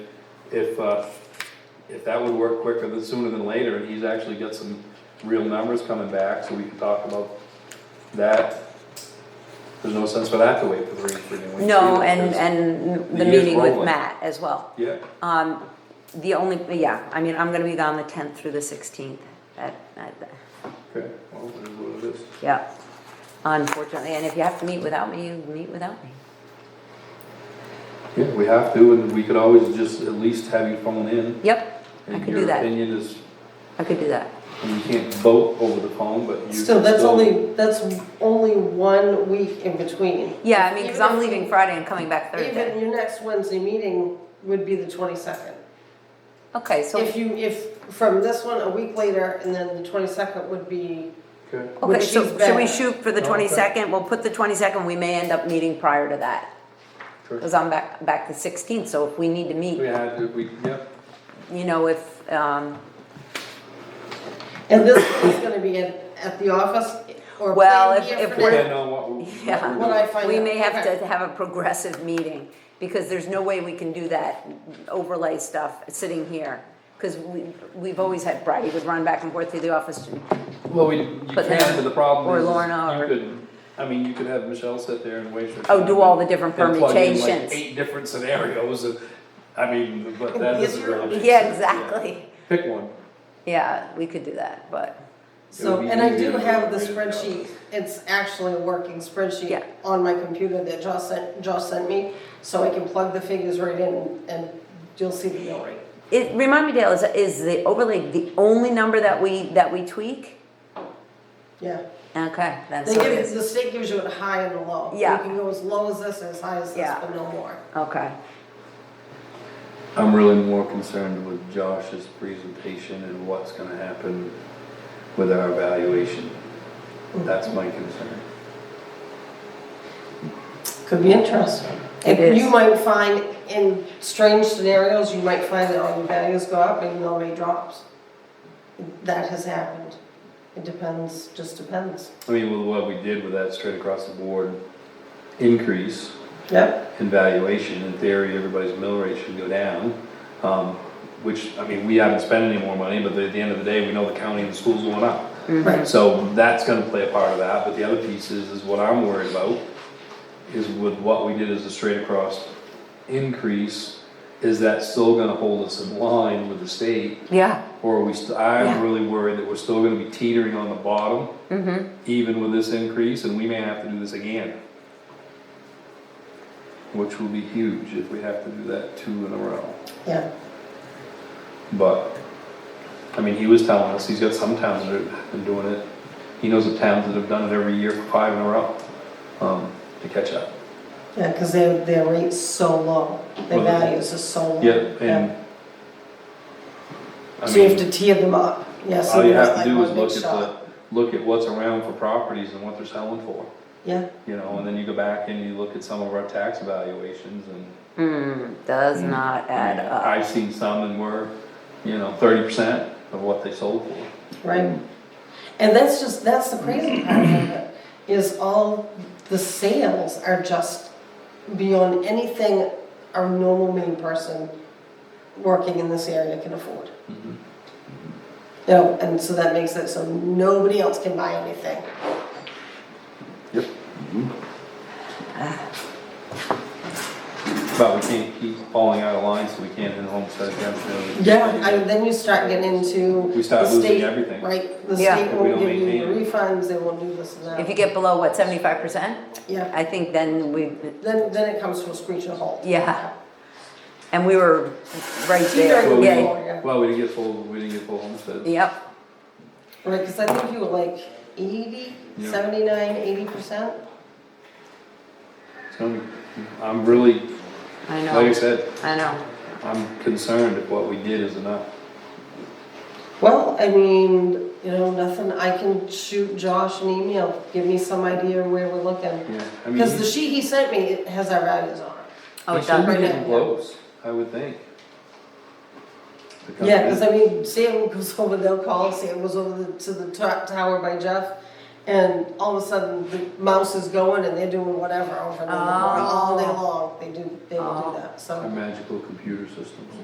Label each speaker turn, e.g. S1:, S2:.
S1: if, uh, if that would work quicker than sooner than later, and he's actually got some real numbers coming back, so we can talk about that. There's no sense for that to wait for three freaking weeks.
S2: No,
S1: either,
S2: and,
S1: because-
S2: and the
S1: the year's
S2: meeting with
S1: rolling.
S2: Matt as well.
S1: Yeah,
S2: Um, the only, yeah, I mean, I'm gonna be gone the tenth through the sixteenth, at, at,
S1: okay, well, it is what it is.
S2: yeah. Unfortunately, and if you have to meet without me, you meet without me.
S1: Yeah, we have to, and we could always just at least have you phone in.
S2: Yep, I
S1: and
S2: could do that,
S1: Your opinion is,
S2: I could do that.
S1: and you can't vote over the phone, but you can still.
S3: Still, that's only, that's only one week in between.
S2: Yeah, I mean, cause
S3: Even
S2: I'm
S3: if-
S2: leaving Friday and coming back
S3: Even
S2: Thursday.
S3: your next Wednesday meeting would be the twenty-second.
S2: Okay, so,
S3: If you, if, from this one, a week later, and then the twenty-second would be,
S1: Okay,
S2: okay,
S3: which
S2: so
S3: she's
S2: should we
S3: back.
S2: shoot for the
S1: Oh, Okay.
S2: twenty-second? We'll put the twenty-second, we may end up meeting prior to that.
S1: Sure.
S2: Cause I'm back, back the sixteenth, so if we need to meet,
S1: we had, to- we, yep,
S2: you know, if, um,
S3: and this is gonna be at, at the office or
S2: Well,
S3: plan
S2: if-
S3: here
S2: if
S3: for
S2: we're-
S3: now.
S1: depending on what we. what
S2: Yeah.
S1: we're
S3: What I
S1: doing.
S3: find out.
S2: We may have
S3: Okay.
S2: to have a progressive meeting, because there's no way we can do that overlay stuff sitting here. Because we, we've always had, Brady would run back and forth through the office,
S1: Well, we, you can,
S2: But then-
S1: but the problem
S2: or
S1: is,
S2: Lorna
S1: you
S2: or-
S1: could, I mean, you could have Michelle sit there and wait for.
S2: oh, do all the different
S1: and plug in, like,
S2: permutations.
S1: Eight different scenarios, and, I mean, but that doesn't really. make
S2: Yeah,
S1: sense,
S2: exactly,
S1: Pick one.
S2: yeah, we could do that, but,
S3: So,
S1: It would be
S3: and I
S1: easier
S3: do
S1: to
S3: have the
S1: do it right now.
S3: spreadsheet, it's actually a working
S2: Yeah.
S3: spreadsheet on my computer that Josh sent, Josh sent me, so I can plug the figures right in and you'll see the mill rate.
S2: it, remind me, Dale, is, is the overlay the only number that we, that we tweak?
S3: Yeah,
S2: Okay, that's
S3: they
S2: what it
S3: give,
S2: is,
S3: the state gives you a high and a low.
S2: Yeah.
S3: You can go as low as this, or as high as this,
S2: Yeah.
S3: but no more.
S2: okay,
S1: I'm really more concerned with Josh's presentation and what's gonna happen with our evaluation. That's my concern.
S3: Could be interesting.
S2: It
S3: And You
S2: is.
S3: might find, in strange scenarios, you might find that all your values go up and your rate drops. That has happened. It depends, just depends.
S1: I mean, with what we did with that straight across the board increase
S3: Yep.
S1: in valuation, in theory, everybody's mill rate should go down. Um, which, I mean, we haven't spent any more money, but at the end of the day, we know the county and the schools going up.
S2: Mm-hmm.
S3: Right.
S1: So that's gonna play a part of that, but the other piece is, is what I'm worried about, is with what we did as a straight across increase, is that still gonna hold us in line with the state?
S2: yeah,
S1: Or are we, st-
S2: Yeah.
S1: I'm really worried that we're still gonna be teetering on the bottom,
S3: Mm-hmm.
S1: even with this increase, and we may have to do this again. Which will be huge if we have to do that two in a row.
S3: Yeah.
S1: But, I mean, he was telling us, he's got some towns that have been doing it. He knows of towns that have done it every year for five in a row, um, to catch up.
S3: Yeah, because their, their rate's so low, their
S1: Well, they-
S3: values are so low.
S1: Yeah, and. I
S3: So you have
S1: mean,
S3: to tear them up, yes.
S1: all you have to do is look at the, look at what's around for properties and what they're selling for,
S3: Yeah,
S1: you know, and then you go back and you look at some of our tax evaluations and.
S2: Hmm, does not
S1: I
S2: add
S1: mean,
S2: up.
S1: I've seen some and were, you know, thirty percent of what they sold for.
S3: right. And that's just, that's the crazy part of it, is all the sales are just beyond anything our normal main person working in this area can afford.
S1: Mm-hmm.
S3: You know, and so that makes it so nobody else can buy anything.
S1: Yep. But we can't keep falling out of line, so we can't in homestead exemption.
S3: Yeah, I, then you start getting into.
S1: We start
S3: the
S1: losing
S3: state,
S1: everything.
S3: Right, the
S2: Yeah.
S3: state
S1: If we
S3: won't
S1: don't
S3: give you
S1: maintain
S3: refunds, they won't do this and that.
S2: If you get below, what, seventy-five percent?
S3: Yeah,
S2: I think then we,
S3: then, then it comes to a screeching halt.
S2: Yeah. and we were right
S3: Either
S2: there,
S1: Well, we
S2: yeah,
S1: didn't- well, we didn't get full, we didn't get full homestead.
S2: yep,
S3: Right, because I think you were like eighty,
S1: Yeah.
S3: seventy-nine, eighty percent.
S1: It's gonna be- I'm really,
S2: I
S1: like I
S2: know,
S1: said,
S2: I know.
S1: I'm concerned if what we did is enough.
S3: Well, I mean, you know, nothing, I can shoot Josh an email, give me some idea where we're looking.
S1: Yeah, I mean,
S3: Because the
S1: he-
S3: sheet he sent me it has our values on it.
S2: Oh,
S1: he
S2: it
S1: should
S2: does,
S1: be
S3: right
S1: getting
S3: now.
S1: close, I would think. The
S3: Yeah, because I
S1: company-
S3: mean, Sam goes over, they'll call, Sam goes over the- to the to- tower by Jeff, and all of a sudden, the mouse is going and they're doing whatever over and over, all day
S2: Oh.
S3: long, they do, they do
S2: Oh.
S3: that, so.
S1: Our magical computer systems.